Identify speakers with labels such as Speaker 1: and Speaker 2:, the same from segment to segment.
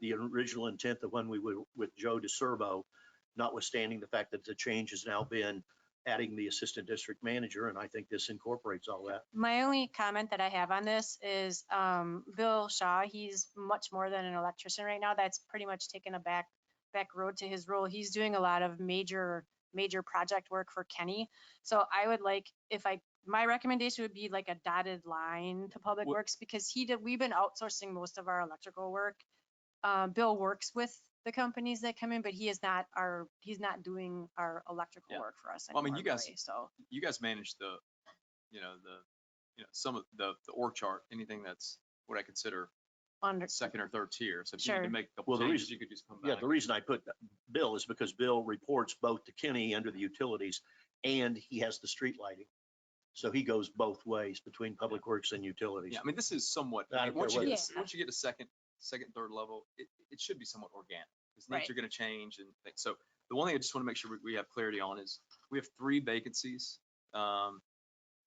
Speaker 1: the original intent of when we were with Joe DeSerbo, notwithstanding the fact that the change has now been adding the assistant district manager, and I think this incorporates all that.
Speaker 2: My only comment that I have on this is um, Bill Shaw, he's much more than an electrician right now. That's pretty much taken a back, back road to his role. He's doing a lot of major, major project work for Kenny. So I would like, if I, my recommendation would be like a dotted line to Public
Speaker 1: Wha-
Speaker 2: Works because he did, we've been outsourcing most of our electrical work. Uh, Bill works with the companies that come in, but he is not our, he's not doing our electrical
Speaker 3: Yeah.
Speaker 2: work for us
Speaker 3: Well, I mean,
Speaker 2: anymore,
Speaker 3: you guys-
Speaker 2: really, so.
Speaker 3: you guys manage the, you know, the, you know, some of the, the org chart, anything that's what I consider
Speaker 2: Under,
Speaker 3: second or third tier. So if you need
Speaker 2: Sure.
Speaker 3: to make a
Speaker 1: Well,
Speaker 3: couple
Speaker 1: the
Speaker 3: changes,
Speaker 1: reason-
Speaker 3: you could just come
Speaker 1: Yeah,
Speaker 3: back.
Speaker 1: the reason I put Bill is because Bill reports both to Kenny under the utilities, and he has the street lighting. So he goes both ways between Public Works and utilities.
Speaker 3: Yeah, I mean, this is somewhat,
Speaker 1: I don't
Speaker 3: like, once
Speaker 1: care
Speaker 3: you
Speaker 2: what
Speaker 3: get,
Speaker 2: it
Speaker 3: to-
Speaker 2: is.
Speaker 3: once you get to second, second, third level, it, it should be somewhat organic. Because
Speaker 2: Right.
Speaker 3: things are gonna change and things. So the one thing I just want to make sure we- we have clarity on is, we have three vacancies. Um,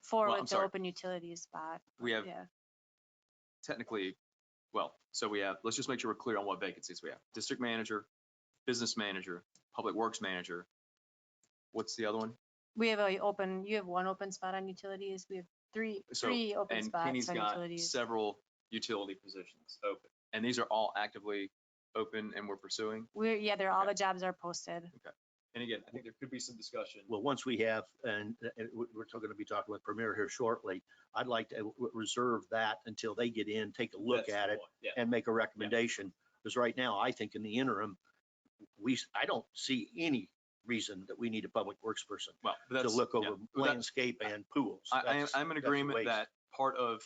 Speaker 2: Four
Speaker 3: Well, I'm
Speaker 2: with the
Speaker 3: sorry.
Speaker 2: open utilities spot.
Speaker 3: We have
Speaker 2: Yeah,
Speaker 3: technically, well, so we have, let's just make sure we're clear on what vacancies we have. District manager, business manager, public works manager. What's the other one?
Speaker 2: we have a open, you have one open spot on utilities, we have three,
Speaker 3: So,
Speaker 2: three open
Speaker 3: And
Speaker 2: spots
Speaker 3: Kenny's
Speaker 2: on
Speaker 3: got
Speaker 2: utilities.
Speaker 3: several utility positions open. And these are all actively open and we're pursuing.
Speaker 2: We're, yeah, they're, all
Speaker 3: okay.
Speaker 2: the jobs are posted.
Speaker 3: And again, I think there could be some discussion.
Speaker 1: Well, once we have, and uh, and we- we're going to be talking with Premier here shortly, I'd like to uh, w- reserve that until they get in, take a look
Speaker 3: That's
Speaker 1: at
Speaker 3: the
Speaker 1: it,
Speaker 3: one, Yeah.
Speaker 1: and make a recommendation. Because right now, I think in the interim, we, s- I don't see any reason that we need a public works person
Speaker 3: Well, but
Speaker 1: to
Speaker 3: that's.
Speaker 1: look
Speaker 3: yeah,
Speaker 1: over
Speaker 3: but that-
Speaker 1: landscape and pools.
Speaker 3: I, I am,
Speaker 1: That's-
Speaker 3: I'm in
Speaker 1: that's a
Speaker 3: agreement
Speaker 1: waste.
Speaker 3: that part of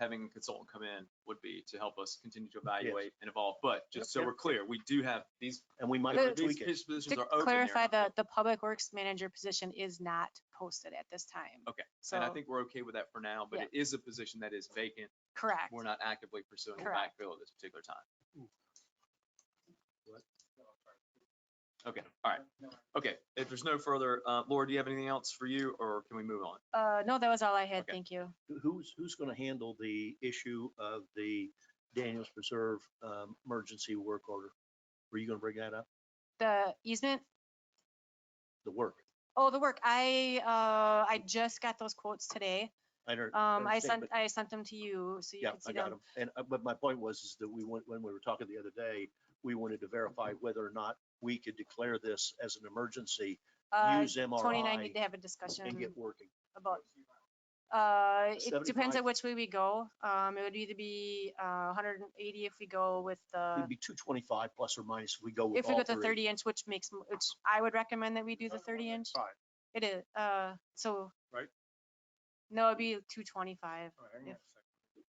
Speaker 3: having a consultant come in would be to help us continue to evaluate and evolve. But just so
Speaker 1: Yep.
Speaker 3: we're clear, we do have these,
Speaker 1: And we might
Speaker 2: But-
Speaker 1: want to
Speaker 3: these
Speaker 1: tweak it.
Speaker 3: these positions
Speaker 2: To
Speaker 3: are open. they're
Speaker 2: clarify,
Speaker 3: not
Speaker 2: the,
Speaker 3: filled.
Speaker 2: the public works manager position is not posted at this time.
Speaker 3: Okay,
Speaker 2: So,
Speaker 3: And I think we're okay with that for now, but
Speaker 2: Yeah.
Speaker 3: it is a position that is vacant.
Speaker 2: correct.
Speaker 3: We're not actively pursuing a
Speaker 2: Correct.
Speaker 3: backfill at this particular time. Okay, all right. Okay, if there's no further, uh, Laura, do you have anything else for you or can we move on?
Speaker 2: Uh, no, that was all I had,
Speaker 3: Okay.
Speaker 2: thank you.
Speaker 1: Who- Who's, who's going to handle the issue of the Daniels Preserve um, emergency work order? Were you going to bring that up?
Speaker 2: The easement,
Speaker 1: The work?
Speaker 2: oh, the work, I, uh, I just got those quotes today.
Speaker 1: I don't.
Speaker 2: Um, I
Speaker 1: understand,
Speaker 2: sent,
Speaker 1: but-
Speaker 2: I sent them to you, so you
Speaker 1: Yeah,
Speaker 2: can see
Speaker 1: I got
Speaker 2: them.
Speaker 1: them. And, uh, but my point was is that we went, when we were talking the other day, we wanted to verify whether or not we could declare this as an emergency,
Speaker 2: Uh,
Speaker 1: use
Speaker 2: Tony and I
Speaker 1: MRI
Speaker 2: need to have a discussion.
Speaker 1: and get working.
Speaker 2: about, uh, it
Speaker 1: 75?
Speaker 2: depends on which way we go. Um, it would either be, uh, hundred and eighty if we go with the,
Speaker 1: It'd be two twenty-five plus or minus if we go with
Speaker 2: if we
Speaker 1: all
Speaker 2: go the
Speaker 1: three.
Speaker 2: thirty inch, which makes, m- which I would recommend that we do the thirty inch.
Speaker 4: Five,
Speaker 2: It is, uh, so.
Speaker 4: Right?
Speaker 2: No, it'd be two twenty-five.
Speaker 4: all right, hang on
Speaker 2: Yeah.
Speaker 4: a second.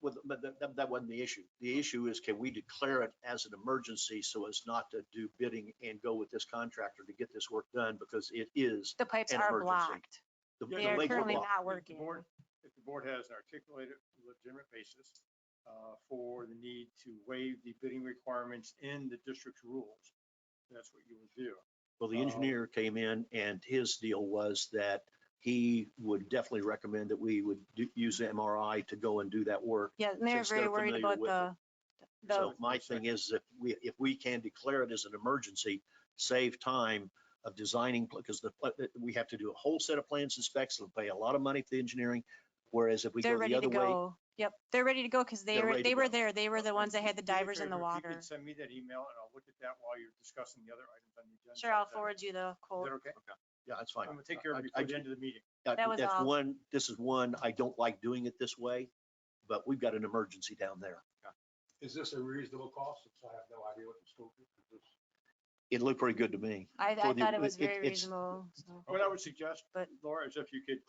Speaker 1: Well, But that, that- that wasn't the issue. The issue is can we declare it as an emergency so as not to do bidding and go with this contractor to get this work done because it is.
Speaker 2: The pipes
Speaker 1: An
Speaker 2: are
Speaker 1: emergency.
Speaker 2: blocked.
Speaker 1: the-
Speaker 4: Yeah,
Speaker 1: the
Speaker 2: They are
Speaker 1: lake will
Speaker 2: currently
Speaker 1: block.
Speaker 2: not
Speaker 4: If the
Speaker 2: working.
Speaker 4: board- If the board has an articulated legitimate basis uh, for the need to waive the bidding requirements in the district's rules, that's what you would do.
Speaker 1: Well,
Speaker 2: Uh,
Speaker 1: the
Speaker 4: Oh.
Speaker 1: engineer came in and his deal was that he would definitely recommend that we would do- use MRI to go and do that work.
Speaker 2: Yeah, and they're
Speaker 1: since they're
Speaker 2: very worried
Speaker 1: familiar
Speaker 2: about
Speaker 1: with
Speaker 2: the, the,
Speaker 1: So my thing is if we, if we can declare it as an emergency, save time of designing, because the, pla- that we have to do a whole set of plans and specs, it'll pay a lot of money for the engineering. Whereas if we
Speaker 2: they're
Speaker 1: go the
Speaker 2: ready to
Speaker 1: other way,
Speaker 2: go. Yep, they're ready to go because they
Speaker 1: They're
Speaker 2: were,
Speaker 1: ready to
Speaker 2: they were
Speaker 1: go.
Speaker 2: there. They were the ones that had the
Speaker 4: Do me a
Speaker 2: divers in the
Speaker 4: favor, if
Speaker 2: water.
Speaker 4: You Uh, can send me that email and I'll look at that while you're discussing the other items on the agenda.
Speaker 2: Sure, I'll
Speaker 4: Is that-
Speaker 2: forward you the
Speaker 4: Is
Speaker 2: quote.
Speaker 4: that okay?
Speaker 1: yeah, that's
Speaker 4: I'm
Speaker 1: fine.
Speaker 4: gonna take care
Speaker 1: I-
Speaker 4: of
Speaker 1: I
Speaker 4: it before the
Speaker 1: ju-
Speaker 4: end of the meeting.
Speaker 1: Uh,
Speaker 2: That was
Speaker 1: That's
Speaker 2: all.
Speaker 1: one, this is one, I don't like doing it this way, but we've got an emergency down there.
Speaker 5: Is this a reasonable cost? Since I have no idea what the scope is. of this.
Speaker 1: It looked pretty good to me.
Speaker 2: I, I
Speaker 1: for the-
Speaker 2: thought it was
Speaker 1: it-
Speaker 2: very
Speaker 1: it's-
Speaker 2: reasonable. so.
Speaker 4: What I would suggest,
Speaker 2: But-
Speaker 4: Laura, is if you could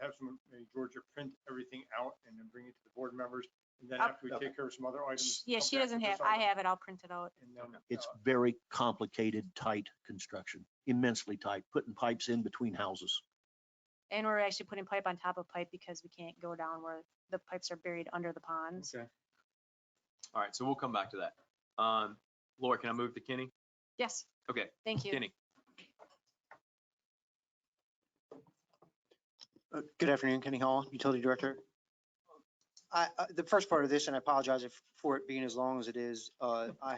Speaker 4: have some, maybe Georgia print everything out and then bring it to the board members. And then
Speaker 2: I'll-
Speaker 4: after we take care of some other
Speaker 2: Sh-
Speaker 4: items.
Speaker 2: Yeah,
Speaker 4: come
Speaker 2: she
Speaker 4: back to
Speaker 2: doesn't
Speaker 4: this
Speaker 2: have, I
Speaker 4: item,
Speaker 2: have it all printed out.
Speaker 4: and then,
Speaker 1: It's
Speaker 4: uh,
Speaker 1: very complicated, tight construction, immensely tight, putting pipes in between houses.
Speaker 2: And we're actually putting pipe on top of pipe because we can't go down where the pipes are buried under the ponds.
Speaker 3: Okay. All right, so we'll come back to that. Um, Laura, can I move to Kenny?
Speaker 2: Yes,
Speaker 3: Okay,
Speaker 2: thank you.
Speaker 3: Kenny.
Speaker 6: Uh, Good afternoon, Kenny Hall, Utility Director. I, I- the first part of this, and I apologize if- for it being as long as it is, uh, I